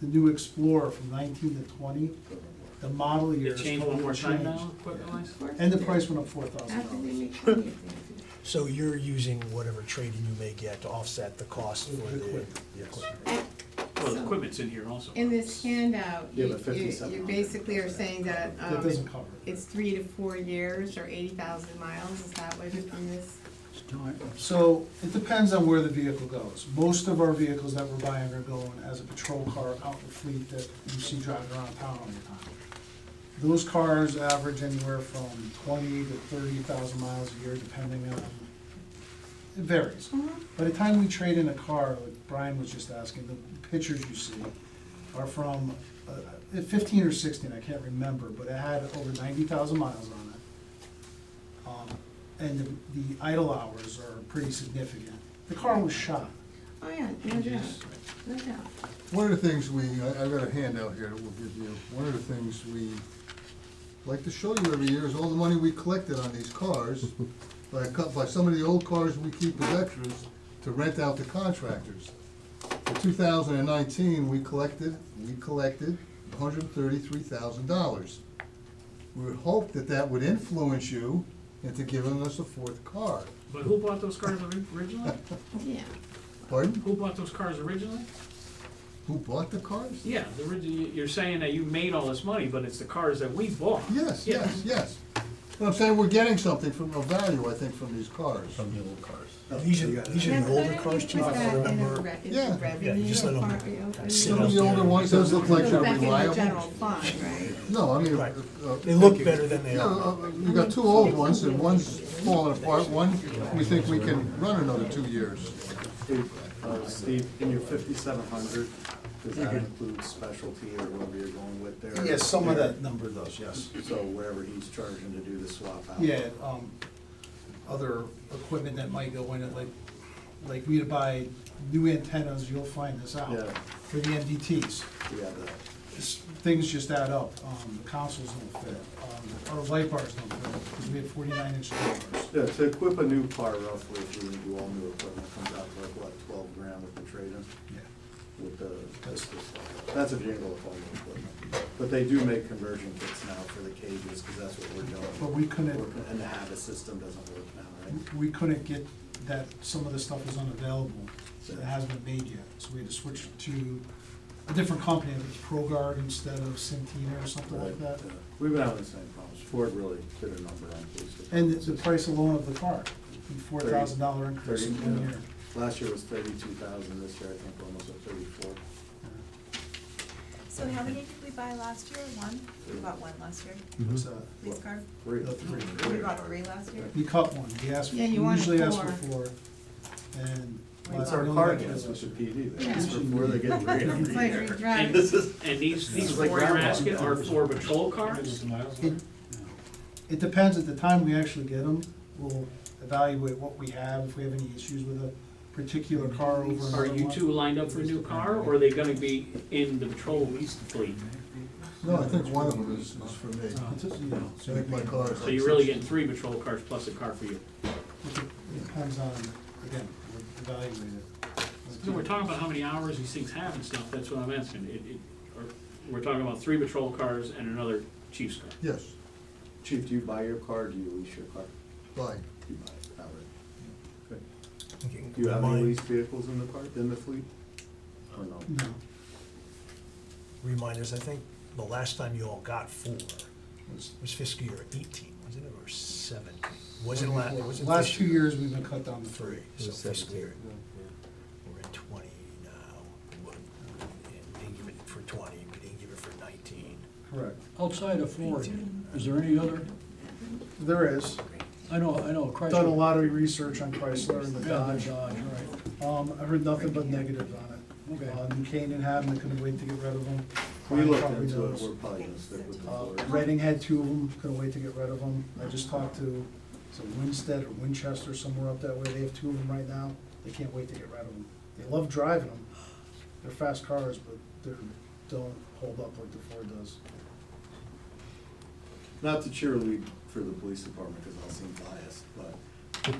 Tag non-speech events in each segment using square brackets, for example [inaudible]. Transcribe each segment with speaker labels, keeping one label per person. Speaker 1: the new Explorer from nineteen to twenty, the model year
Speaker 2: It
Speaker 1: is
Speaker 2: changed one
Speaker 1: totally
Speaker 2: more time
Speaker 1: changed.
Speaker 2: now, equipment wise?
Speaker 1: And the price went up four
Speaker 3: How
Speaker 1: thousand
Speaker 3: can they
Speaker 1: dollars.
Speaker 3: make money if they have to?
Speaker 4: So you're using whatever trading you may get to offset the cost for the.
Speaker 1: Equipment.
Speaker 4: Yes.
Speaker 2: Well, the
Speaker 3: So-
Speaker 2: equipment's in here also.
Speaker 5: In this handout,
Speaker 6: Yeah,
Speaker 5: you,
Speaker 6: but
Speaker 5: you
Speaker 6: 57
Speaker 5: you basically are saying that,
Speaker 1: That
Speaker 5: um,
Speaker 1: doesn't cover it.
Speaker 5: it's three to four years or eighty thousand miles, is that what it is?
Speaker 1: So it depends on where the vehicle goes. Most of our vehicles that we're buying are going as a patrol car out in the fleet that you see driving around town all the time. Those cars average anywhere from twenty to thirty thousand miles a year, depending on, it varies.
Speaker 5: Uh-huh.
Speaker 1: By the time we trade in a car, like Brian was just asking, the pictures you see are from uh, fifteen or sixteen, I can't remember, but it had over ninety thousand miles on it. Um, And the the idle hours are pretty significant. The car was shot.
Speaker 5: Oh, yeah, no doubt, no doubt.
Speaker 6: One of the things we, I, I've got a handout here that we'll give you, one of the things we like to show you every year is all the money we collected on these cars, by a cou- by some of the old cars we keep as extras, to rent out to contractors. In two thousand and nineteen, we collected, we collected hundred and thirty-three thousand dollars. We would hope that that would influence you into giving us a fourth car.
Speaker 2: But who bought those cars ori- originally?
Speaker 5: Yeah,
Speaker 6: Pardon?
Speaker 2: Who bought those cars originally?
Speaker 6: Who bought the cars?
Speaker 2: Yeah, the orig- you- you're saying that you made all this money, but it's the cars that we bought.
Speaker 6: Yes,
Speaker 2: Yeah.
Speaker 6: yes, yes. But I'm saying we're getting something from, a value, I think, from these cars.
Speaker 7: From the old cars.
Speaker 4: These are, these are
Speaker 5: Now,
Speaker 4: the older
Speaker 5: couldn't
Speaker 4: cars
Speaker 5: you
Speaker 4: too,
Speaker 5: put
Speaker 4: if I
Speaker 5: that in a
Speaker 4: remember.
Speaker 5: re- in
Speaker 6: Yeah.
Speaker 5: the revenue
Speaker 4: Yeah, you just let 'em
Speaker 5: part, you know, I mean,
Speaker 4: sit
Speaker 6: Some of the
Speaker 4: out
Speaker 6: older
Speaker 4: there.
Speaker 6: ones, those look like
Speaker 5: goes
Speaker 6: they're
Speaker 5: Back in the general
Speaker 6: reliable.
Speaker 5: fund, right?
Speaker 6: No, I mean.
Speaker 4: Right.
Speaker 6: uh, uh,
Speaker 4: They look better than they
Speaker 6: Yeah,
Speaker 4: are.
Speaker 6: uh, we've got two old ones, and one's falling apart, one, we think we can run another two years.
Speaker 7: Uh, Steve, in your fifty-seven hundred, does that include specialty or whatever you're going with there?
Speaker 1: Mm-hmm. Yes, some of that number does, yes.
Speaker 7: So whatever he's charging to do the swap out?
Speaker 1: Yeah, um, other equipment that might go in it, like, like we would buy new antennas, you'll find this out,
Speaker 7: Yeah.
Speaker 1: for the MDTs.
Speaker 7: We have that.
Speaker 1: It's- Things just add up. Um, The consoles don't fit, um, our light bars don't fit, because we had forty-nine inch light bars.
Speaker 7: Yeah, to equip a new car roughly, if you do all new equipment, comes out to like, what, twelve grand with the trade-in?
Speaker 1: Yeah.
Speaker 7: With the, this- this- that's a jingle of all new equipment. But they do make conversion kits now for the cages, because that's what we're doing.
Speaker 1: But we couldn't-
Speaker 7: We're- And the habit system doesn't work now, right?
Speaker 1: we couldn't get that, some of the stuff was unavailable, so it hasn't been made yet, so we had to switch to a different company, it was ProGuard instead of Centina or something like that.
Speaker 7: Yeah. We've been having the same problems. Ford really did a number on police.
Speaker 1: And the price alone of the car, four thousand dollar increase
Speaker 7: Thirty,
Speaker 1: in one year.
Speaker 7: Last year was thirty-two thousand, this year I think we're almost at thirty-four.
Speaker 8: So how many did we buy last year? One? We bought one last year,
Speaker 1: What's that?
Speaker 8: police car?
Speaker 7: Three.
Speaker 1: The Oh, three.
Speaker 8: We bought three last year?
Speaker 1: We cut one, we asked, we
Speaker 5: Yeah, you wanted
Speaker 1: usually ask for
Speaker 5: four.
Speaker 1: four, and.
Speaker 7: That's
Speaker 1: I
Speaker 7: our
Speaker 1: don't
Speaker 7: car
Speaker 1: like
Speaker 7: against
Speaker 1: that.
Speaker 7: Mr. PD.
Speaker 5: Yeah.
Speaker 7: That's before they
Speaker 1: [laughs]
Speaker 7: get three
Speaker 5: It's
Speaker 7: every
Speaker 5: like
Speaker 7: year.
Speaker 5: redrive.
Speaker 2: And this is, and these, these
Speaker 7: It's
Speaker 2: four
Speaker 7: like
Speaker 2: you're
Speaker 7: grandma.
Speaker 2: asking are for patrol cars?
Speaker 1: It it depends, at the time we actually get them, we'll evaluate what we have, if we have any issues with a particular car over another
Speaker 2: Are you
Speaker 1: one.
Speaker 2: two lined up for a new car, or are they gonna be in the patrol fleet?
Speaker 6: No, I think one of them is, is for me.
Speaker 1: Uh, It's a- you know,
Speaker 6: I think my car is.
Speaker 2: So you're really getting three patrol cars plus a car for you.
Speaker 1: It depends on, again, we evaluate it.
Speaker 2: So we're talking about how many hours these things have and stuff, that's what I'm asking. It, it, are- we're talking about three patrol cars and another chief's car.
Speaker 6: Yes,
Speaker 7: Chief, do you buy your car, or do you lease your car?
Speaker 6: bye.
Speaker 7: You buy it, outright. Good.
Speaker 4: Okay.
Speaker 7: Do you have any
Speaker 4: Remind-
Speaker 7: leased vehicles in the car, in the fleet? Or no?
Speaker 1: No,
Speaker 4: Reminders, I think the last time you all got four was was fiscal year eighteen, wasn't it, or seventeen? Wasn't last,
Speaker 1: Well,
Speaker 4: was
Speaker 1: last two years, we've been cut down to
Speaker 4: Three,
Speaker 1: three.
Speaker 4: so fiscal year, we're at twenty now, what, and they give it for twenty, we didn't give it for nineteen.
Speaker 1: Correct.
Speaker 9: Outside of Florida, is there any other,
Speaker 1: There is.
Speaker 9: I know, I know, Chrysler.
Speaker 1: Done a lot of research on Chrysler and the
Speaker 9: Yeah, the
Speaker 1: Dodge.
Speaker 9: Dodge, right.
Speaker 1: Um, I've heard nothing but negatives on it.
Speaker 9: Okay.
Speaker 1: Uh, New Canaan had them, they couldn't wait to get rid of them.
Speaker 7: We
Speaker 1: Brian
Speaker 7: looked
Speaker 1: probably
Speaker 7: into it,
Speaker 1: knows.
Speaker 7: we're probably gonna stick with the
Speaker 1: Uh,
Speaker 7: Ford.
Speaker 1: Reading had two of them, couldn't wait to get rid of them. I just talked to, some Winstead or Winchester, somewhere up that way, they have two of them right now. They can't wait to get rid of them. They love driving them. They're fast cars, but they're, don't hold up like the Ford does.
Speaker 7: not to cheerlead for the police department, because I'll seem biased, but,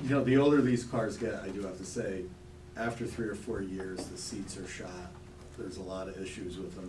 Speaker 7: you know, the older these cars get, I do have to say, after three or four years, the seats are shot, there's a lot of issues with them